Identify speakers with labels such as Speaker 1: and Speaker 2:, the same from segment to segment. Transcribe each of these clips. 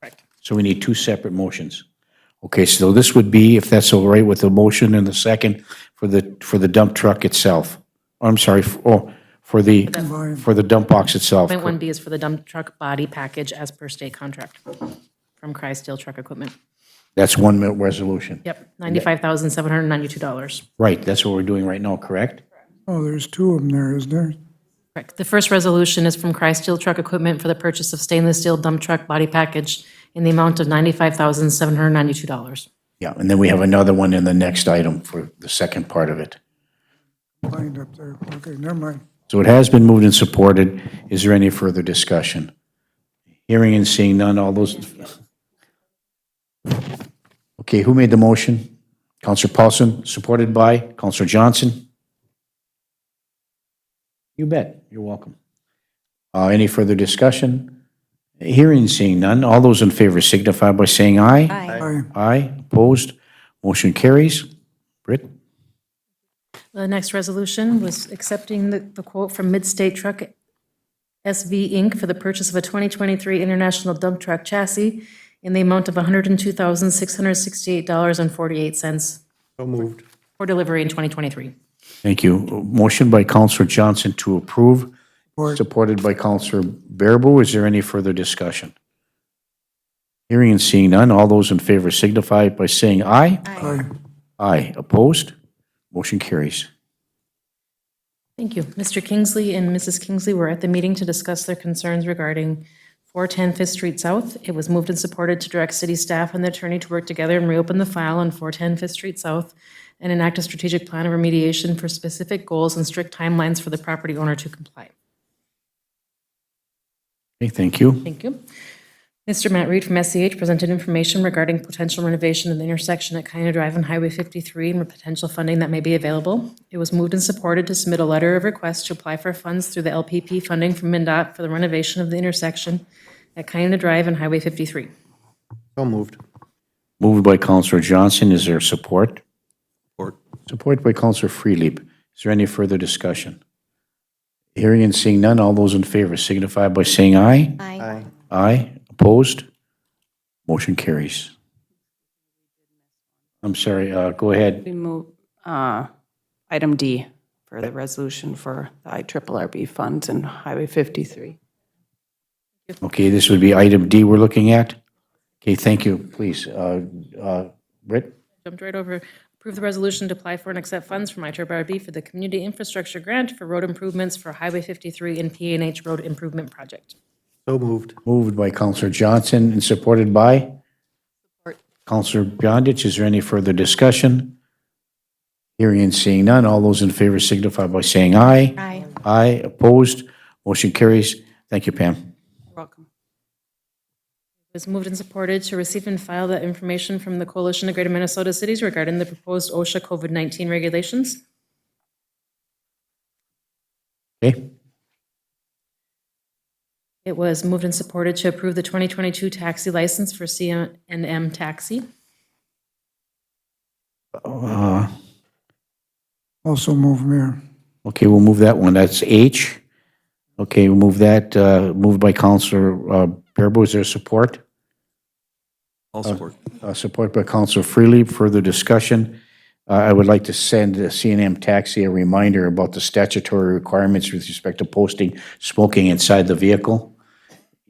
Speaker 1: Correct.
Speaker 2: So we need two separate motions. Okay, so this would be, if that's all right with the motion and the second, for the, for the dump truck itself. I'm sorry, f- oh, for the, for the dump box itself.
Speaker 1: Point one B is for the dump truck body package as per state contract from Cry Steel Truck Equipment.
Speaker 2: That's one minute resolution.
Speaker 1: Yep, ninety-five thousand, seven hundred and ninety-two dollars.
Speaker 2: Right, that's what we're doing right now, correct?
Speaker 3: Oh, there's two of them there, is there?
Speaker 1: Correct. The first resolution is from Cry Steel Truck Equipment for the purchase of stainless steel dump truck body package in the amount of ninety-five thousand, seven hundred and ninety-two dollars.
Speaker 2: Yeah, and then we have another one in the next item for the second part of it.
Speaker 3: Lined up there. Okay, never mind.
Speaker 2: So it has been moved and supported. Is there any further discussion? Hearing and seeing none, all those. Okay, who made the motion? Counselor Paulson, supported by Counselor Johnson? You bet. You're welcome. Uh, any further discussion? Hearing and seeing none, all those in favor signify by saying aye. Aye.
Speaker 3: Aye.
Speaker 2: Aye, opposed, motion carries. Britt?
Speaker 1: The next resolution was accepting the the quote from Midstate Truck SV Inc. for the purchase of a 2023 International Dump Truck chassis in the amount of $102,668.48
Speaker 4: So moved.
Speaker 1: for delivery in 2023.
Speaker 2: Thank you. Motion by Counselor Johnson to approve, supported by Counselor Bearable. Is there any further discussion? Hearing and seeing none, all those in favor signify by saying aye.
Speaker 3: Aye.
Speaker 2: Aye. Opposed? Motion carries.
Speaker 1: Thank you. Mr. Kingsley and Mrs. Kingsley were at the meeting to discuss their concerns regarding 410 Fifth Street South. It was moved and supported to direct city staff and the attorney to work together and reopen the file on 410 Fifth Street South and enact a strategic plan of remediation for specific goals and strict timelines for the property owner to comply.
Speaker 2: Okay, thank you.
Speaker 1: Thank you. Mr. Matt Reed from SEH presented information regarding potential renovation of the intersection at Kiner Drive and Highway 53 and potential funding that may be available. It was moved and supported to submit a letter of request to apply for funds through the LPP funding from MnDOT for the renovation of the intersection at Kiner Drive and Highway 53.
Speaker 4: So moved.
Speaker 2: Moved by Counselor Johnson. Is there support?
Speaker 4: Support.
Speaker 2: Support by Counselor Freelieb. Is there any further discussion? Hearing and seeing none, all those in favor signify by saying aye.
Speaker 4: Aye.
Speaker 2: Aye. Opposed? Motion carries. I'm sorry, uh, go ahead.
Speaker 5: We move uh, item D for the resolution for the IRRB funds and Highway 53.
Speaker 2: Okay, this would be item D we're looking at? Okay, thank you, please. Uh, uh, Britt?
Speaker 1: Jumped right over. Approve the resolution to apply for and accept funds from ITRB for the Community Infrastructure Grant for road improvements for Highway 53 and PNH Road Improvement Project.
Speaker 4: So moved.
Speaker 2: Moved by Counselor Johnson and supported by? Counselor Beyondich, is there any further discussion? Hearing and seeing none, all those in favor signify by saying aye. Aye. Aye, opposed, motion carries. Thank you, Pam.
Speaker 5: You're welcome.
Speaker 1: It was moved and supported to receive and file the information from the Coalition of Greater Minnesota Cities regarding the proposed OSHA COVID-19 regulations.
Speaker 2: Okay?
Speaker 1: It was moved and supported to approve the 2022 taxi license for CNM Taxi.
Speaker 2: Uh,
Speaker 3: Also move, Mayor.
Speaker 2: Okay, we'll move that one. That's H. Okay, we'll move that, uh, moved by Counselor uh, Bearable. Is there support?
Speaker 4: All support.
Speaker 2: Uh, Support by Counselor Freely. Further discussion? Uh, I would like to send CNM Taxi a reminder about the statutory requirements with respect to posting smoking inside the vehicle,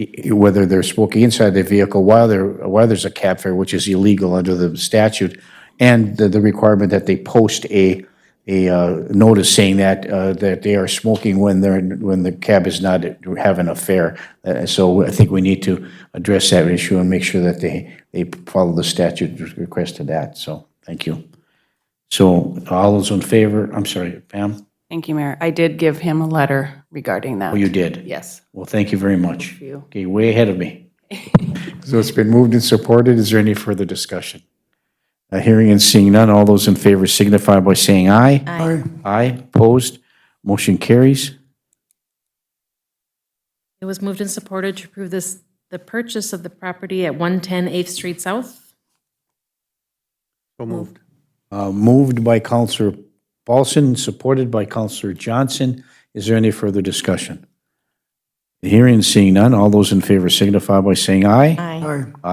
Speaker 2: i- i- whether they're smoking inside the vehicle while they're, while there's a cab fare, which is illegal under the statute, and the the requirement that they post a, a uh, notice saying that, uh, that they are smoking when they're, when the cab is not having a fare. Uh, So I think we need to address that issue and make sure that they, they follow the statute with request to that, so, thank you. So all those in favor, I'm sorry, Pam?
Speaker 5: Thank you, Mayor. I did give him a letter regarding that.
Speaker 2: Oh, you did?
Speaker 5: Yes.
Speaker 2: Well, thank you very much.
Speaker 5: you.
Speaker 2: Okay, way ahead of me. So it's been moved and supported. Is there any further discussion? Uh, Hearing and seeing none, all those in favor signify by saying aye.
Speaker 3: Aye.
Speaker 2: Aye, opposed, motion carries.
Speaker 1: It was moved and supported to approve this, the purchase of the property at 110 8th Street South.
Speaker 4: So moved.
Speaker 2: Uh, Moved by Counselor Paulson, supported by Counselor Johnson. Is there any further discussion? Hearing and seeing none, all those in favor signify by saying aye.
Speaker 1: Aye.
Speaker 3: Aye.